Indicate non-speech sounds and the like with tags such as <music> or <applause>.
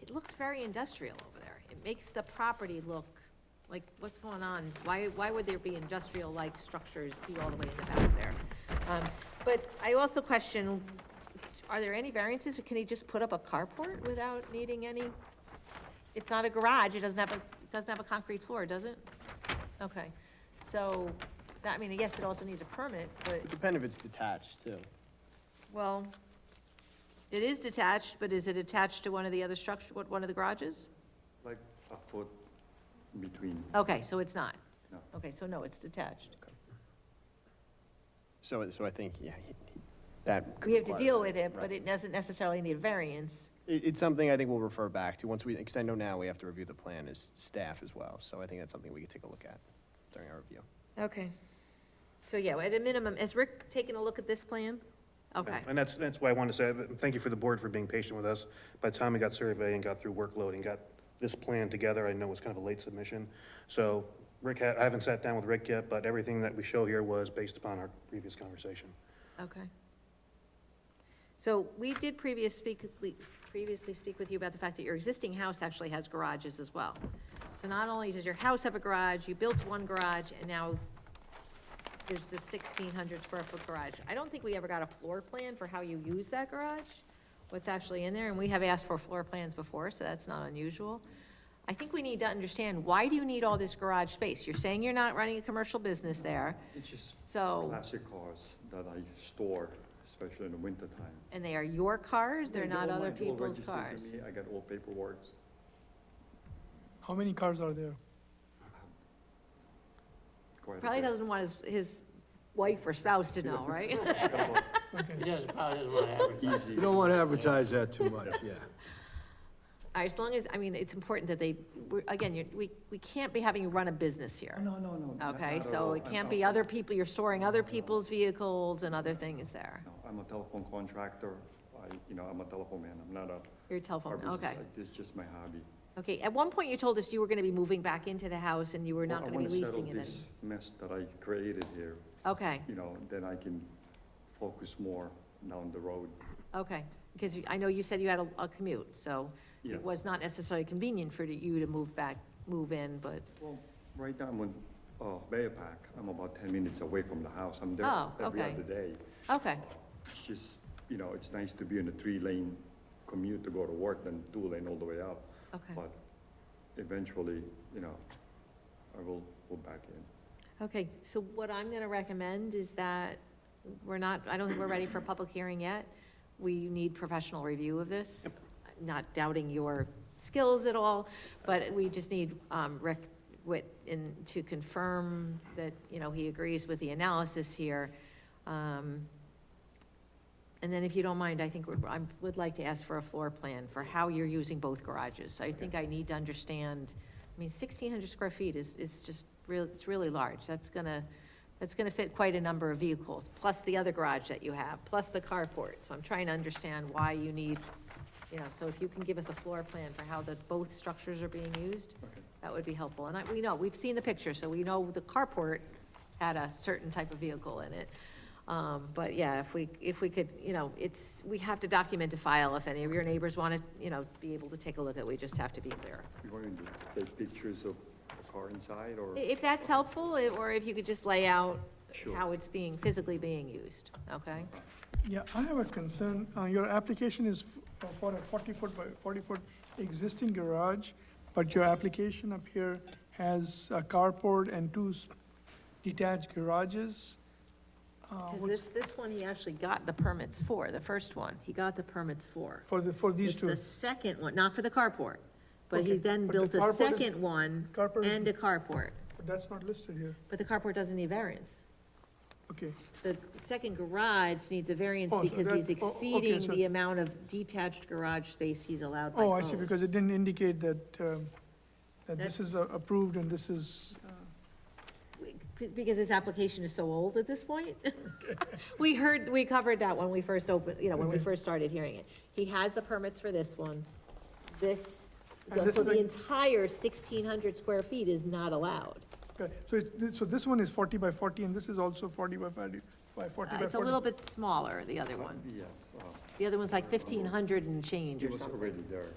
it looks very industrial over there. It makes the property look like, what's going on? Why, why would there be industrial-like structures be all the way in the back there? Um, But I also question, are there any variances, or can he just put up a carport without needing any? It's not a garage, it doesn't have a, it doesn't have a concrete floor, does it? Okay, so, that, I mean, yes, it also needs a permit, but, It depends if it's detached, too. well, it is detached, but is it attached to one of the other structure, what, one of the garages? Like a foot between, Okay, so it's not? No. Okay, so no, it's detached. So, so I think, yeah, he- he- that. could We have to require deal variance, with it, but right. it doesn't necessarily need a variance. It, it's something I think we'll refer back to, once we, because I know now we have to review the plan as staff as well, so I think that's something we could take a look at during our review. Okay. So, yeah, at a minimum, has Rick taken a look at this plan? Okay, And that's, that's why I wanted to say, uh, thank you for the board for being patient with us. By the time we got survey and got through workload and got this plan together, I know it's kind of a late submission. So Rick, ha- I haven't sat down with Rick yet, but everything that we show here was based upon our previous conversation. okay. So we did previous speak, we previously speak with you about the fact that your existing house actually has garages as well. So not only does your house have a garage, you built one garage, and now there's this sixteen hundred square foot garage. I don't think we ever got a floor plan for how you use that garage, what's actually in there, and we have asked for floor plans before, so that's not unusual. I think we need to understand, why do you need all this garage space? You're saying you're not running a commercial business there, it's just so. classic cars that I store, especially in the wintertime. And they are your cars, they're not other people's cars? I got all paperwork, How many cars are there? quite a Probably bit. doesn't want his, his wife or spouse to <laughs> know, right? Uh, Okay, He doesn't, probably doesn't want to advertise. Easy. You don't want to advertise that too much, yeah. <laughs> As long as, I mean, it's important that they, we're- again, you- we, we can't be having you run a business here. No, no, no. not- Okay, not at so all. it I'm can't not- be other people, you're storing other people's vehicles and other things there. No, I'm a telephone contractor, I, you know, I'm a telephone man, I'm not a. Your car telephone, business. okay. I- It's just my hobby. Okay, at one point you told us you were gonna be moving back into the house and you were not I gonna be wanna settle leasing it. this any- Mess that I created here, Okay, you know, then I can focus more down the road. okay, because you- I know you said you had a, a commute, so Yeah. it was not necessarily convenient for you to move back, move in, but Well, right now, I'm on, uh, Bear Pack, I'm about ten minutes away from the house, I'm there Oh, every okay. other day. Okay, It's just, you know, it's nice to be in a three-lane commute to go to work than two-lane all the way out. okay. But eventually, you know, I will go back in. Okay, so what I'm gonna recommend is that we're not, I don't think we're ready for a public hearing yet. We need professional review of this. Not doubting your skills at all, but we just need, um, Rick Witt in, to confirm that, you know, he agrees with the analysis here. Um, And then if you don't mind, I think we're- I would like to ask for a floor plan for how you're using both garages. I think I need to understand I mean, sixteen hundred square feet is, is just real, it's really large, that's gonna, that's gonna fit quite a number of vehicles, plus the other garage that you have, plus the carport, so I'm trying to understand why you need, you know, so if you can give us a floor plan for how the, both structures are being used, Okay. that would be helpful, and I, we know, we've seen the picture, so we know the carport had a certain type of vehicle in it. Um, but yeah, if we, if we could, you know, it's, we have to document a file if any of your neighbors wanna, you know, be able to take a look at, we just have to be clear. You want me to take pictures of the car inside or? I- If that's helpful, i- or if you could just lay out Sure. how it's being, physically being used, okay? yeah, I have a concern, uh, your application is f- uh, for a forty-foot by forty-foot existing garage, but your application up here has a carport and two s- detached garages. Uh, Because what- this, this one, he actually got the permits for, the first one, he got the permits for. For the, for these It's two, the second one, not for the carport, but he Okay, then but the built a carport is- second one carport is- and a carport, but that's not listed here, but the carport doesn't need variance. okay. The second garage needs a variance Oh, so because he's that's- oh, okay, exceeding so- the amount of detached garage space he's allowed by Oh, I see, code. because it didn't indicate that, um, That- that this is uh, approved and this is, uh, because this application is so old at this point. <laughs> We heard, we covered that when we first opened, you know, when we first started hearing it. He has the permits for this one. This, And this so is the a- entire sixteen hundred square feet is not allowed. okay. so it's, this- so this one is forty by forty and this is also forty by forty, by forty by forty. Uh, It's a little bit smaller, the other one. Yes, uh, The other one's like fifteen hundred and change it or was something. already there.